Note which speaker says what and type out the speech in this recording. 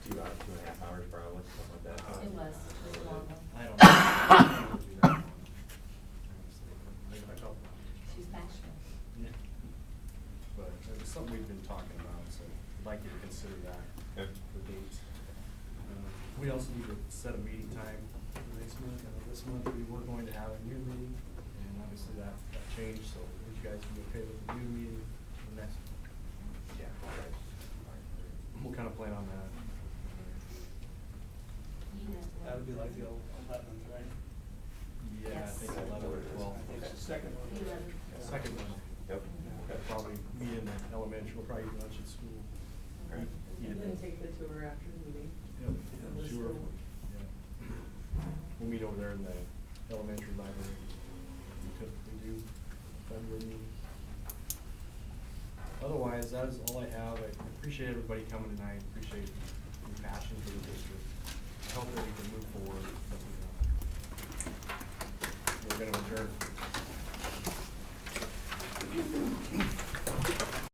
Speaker 1: Uh, we also need to set a meeting time for next month. I know this month we were going to have a new meeting, and obviously that, that changed, so if you guys can be okay with the new meeting the next. Yeah. We'll kind of plan on that.
Speaker 2: That would be like the eleventh, right?
Speaker 1: Yeah, I
Speaker 3: Yes.
Speaker 1: think eleven or twelve.
Speaker 2: I think it's the second one.
Speaker 3: Eleven.
Speaker 1: Second one.
Speaker 4: Yep.
Speaker 1: We'll Probably meet in the elementary, we'll probably eat lunch at school.
Speaker 4: Right.
Speaker 1: Eat
Speaker 5: And
Speaker 1: at
Speaker 5: then
Speaker 1: the-
Speaker 5: take the tour after the meeting.
Speaker 1: Yep,
Speaker 5: And
Speaker 1: yeah,
Speaker 5: the
Speaker 1: sure.
Speaker 5: school.
Speaker 1: Yeah. We'll meet over there in the elementary library. We typically do, February meeting. Otherwise, that is all I have. I appreciate everybody coming tonight, appreciate your passion for the district. I hope that we can move forward. but we don't. We're gonna adjourn.